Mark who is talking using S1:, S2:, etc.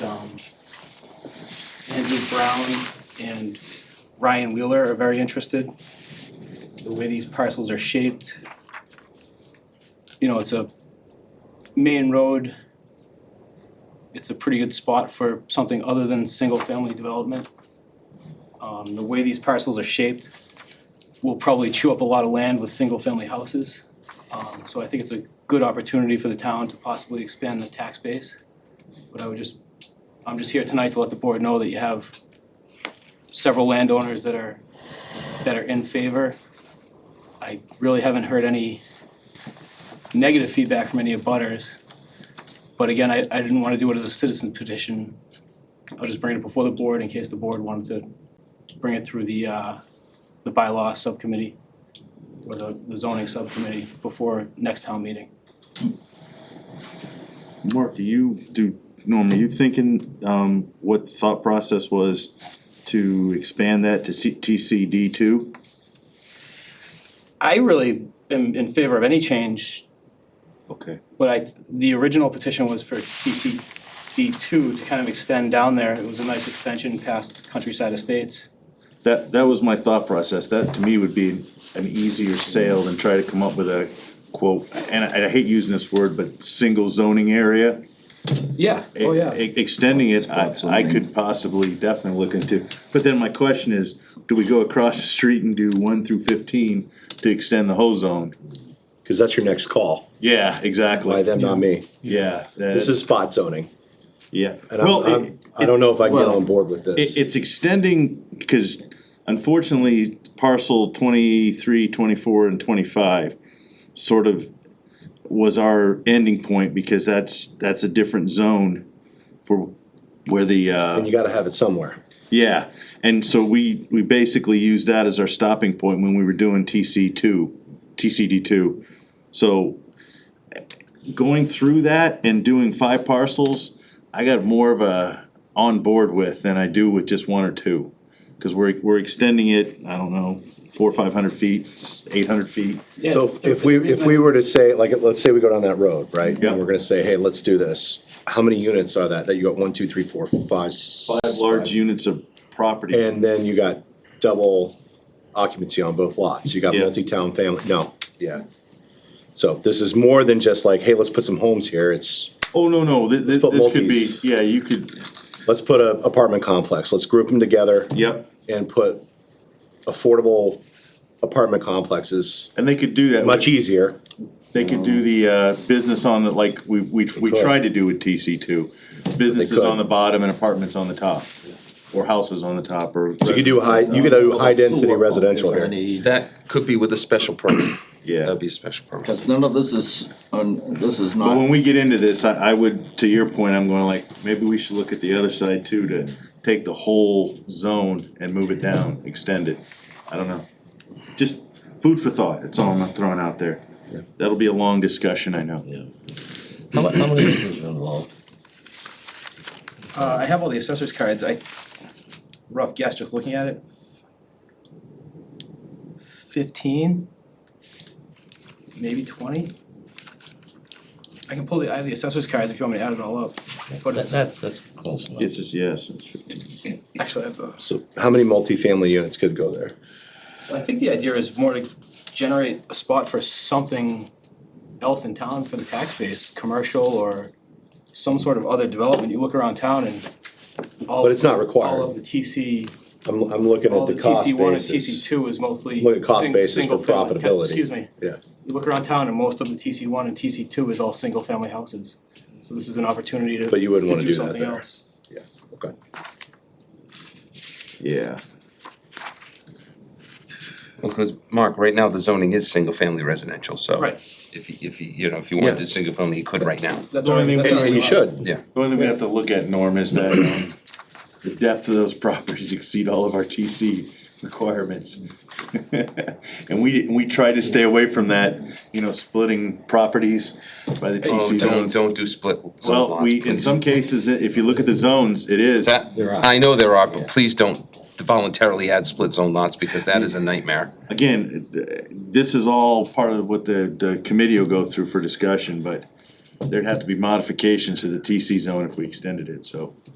S1: um Andrew Brown and Ryan Wheeler are very interested. The way these parcels are shaped, you know, it's a main road. It's a pretty good spot for something other than single-family development. Um, the way these parcels are shaped will probably chew up a lot of land with single-family houses. Um, so I think it's a good opportunity for the town to possibly expand the tax base. But I would just, I'm just here tonight to let the board know that you have several landowners that are, that are in favor. I really haven't heard any negative feedback from any of butters. But again, I, I didn't wanna do it as a citizen petition. I'll just bring it before the board in case the board wanted to bring it through the, uh, the bylaw subcommittee or the the zoning subcommittee before next town meeting.
S2: Mark, do you, do, Norm, are you thinking, um, what the thought process was to expand that to C, TCD two?
S1: I really am in favor of any change,
S2: Okay.
S1: but I, the original petition was for TCD two to kind of extend down there. It was a nice extension past Countryside Estates.
S2: That, that was my thought process, that to me would be an easier sale than try to come up with a quote, and I, I hate using this word, but single zoning area.
S1: Yeah, oh yeah.
S2: E- Extending it, I,
S3: Spot
S2: I
S3: zoning.
S2: could possibly definitely look into, but then my question is, do we go across the street and do one through fifteen to extend the whole zone?
S3: Cause that's your next call,
S2: Yeah, exactly.
S3: by them, not me.
S2: Yeah,
S3: This
S2: that,
S3: is spot zoning,
S2: yeah.
S3: and I'm,
S2: Well, it-
S3: I'm, I don't know if I can get
S2: well,
S3: on board with
S2: it,
S3: this.
S2: it's extending, because unfortunately parcel twenty-three, twenty-four and twenty-five sort of was our ending point, because that's, that's a different zone for where the,
S3: And
S2: uh,
S3: you gotta have it somewhere.
S2: yeah. And so we, we basically used that as our stopping point when we were doing TC two, TCD two. So going through that and doing five parcels, I got more of a on board with than I do with just one or two. Cause we're, we're extending it, I don't know, four or five hundred feet, eight hundred feet.
S3: So if- if we, if we were to say, like, let's say we go down that road, right?
S2: Yeah.
S3: And we're gonna say, hey, let's do this. How many units are that? That you got one, two, three, four, five, s-
S2: Five large units of property.
S3: And then you got double occupancy on both lots. You got
S2: Yeah.
S3: multi-town family, no, yeah. So this is more than just like, hey, let's put some homes here. It's,
S2: Oh, no, no, thi- thi-
S3: put
S2: this could be,
S3: multis.
S2: yeah, you could,
S3: let's put a apartment complex. Let's group them together.
S2: yep,
S3: and put affordable apartment complexes,
S2: and they could do that.
S3: much easier.
S2: They could do the uh, business on the, like, we, we, we
S3: could.
S2: tried to do with TC two. Businesses
S3: could.
S2: on the bottom and apartments on the top, or houses on the top, or.
S3: You could do high, you could do high density residential here.
S4: That could be with a special permit.
S2: Yeah,
S4: That'd be a special permit.
S5: Because none of this is, un- this is
S2: but when
S5: not,
S2: we get into this, I, I would, to your point, I'm going like, maybe we should look at the other side too, to take the whole zone and move it down, extend it. I don't know, just food for thought, that's all I'm throwing out there. That'll be a long discussion, I know.
S6: How mu- how many acres are involved?
S1: Uh, I have all the assessor's cards. I, rough guess, just looking at it. Fifteen? Maybe twenty? I can pull the, I have the assessor's cards if you want me to add it all up. But
S6: That,
S1: it's,
S6: that's, that's close enough.
S2: It's just, yes, it's fifteen.
S1: actually, I have the.
S3: So how many multifamily units could go there?
S1: I think the idea is more to generate a spot for something else in town for the tax base, commercial or some sort of other development. You look around town and all.
S3: But it's not
S1: All of
S3: required.
S1: the TC,
S3: I'm, I'm looking
S1: all
S3: at
S1: the
S3: the cost
S1: TC one and TC
S3: basis.
S1: two is mostly.
S3: Look at cost
S1: sing-
S3: basis for
S1: single-family ca-
S3: profitability.
S1: Excuse me.
S3: Yeah.
S1: You look around town and most of the TC one and TC two is all single-family houses. So this is an opportunity to.
S3: But you wouldn't
S1: to
S3: wanna do that
S1: something
S3: there.
S1: else.
S3: Yeah, okay.
S2: Yeah.
S4: Because, Mark, right now, the zoning is single-family residential, so.
S1: Right.
S4: If he, if he, you know, if he wanted
S3: Yeah.
S4: to single-family, he could right now.
S1: That's
S2: The only
S1: already,
S2: thing-
S1: that's
S3: And,
S1: already.
S3: and you
S1: allowed.
S3: should.
S4: Yeah.
S2: The only thing we have to look at, Norm, is that um, the depth of those properties exceed all of our TC requirements. And we, we try to stay away from that, you know, splitting properties by the
S4: Oh,
S2: TC
S4: don't,
S2: zones.
S4: don't do split zone
S2: Well,
S4: lots,
S2: we, in
S4: please.
S2: some cases, i- if you look at the zones, it is.
S4: That,
S3: There are.
S4: I know there are, but please don't voluntarily add split zone lots, because that is a nightmare.
S2: Again, uh, this is all part of what the, the committee will go through for discussion, but there'd have to be modifications to the TC zone if we extended it, so.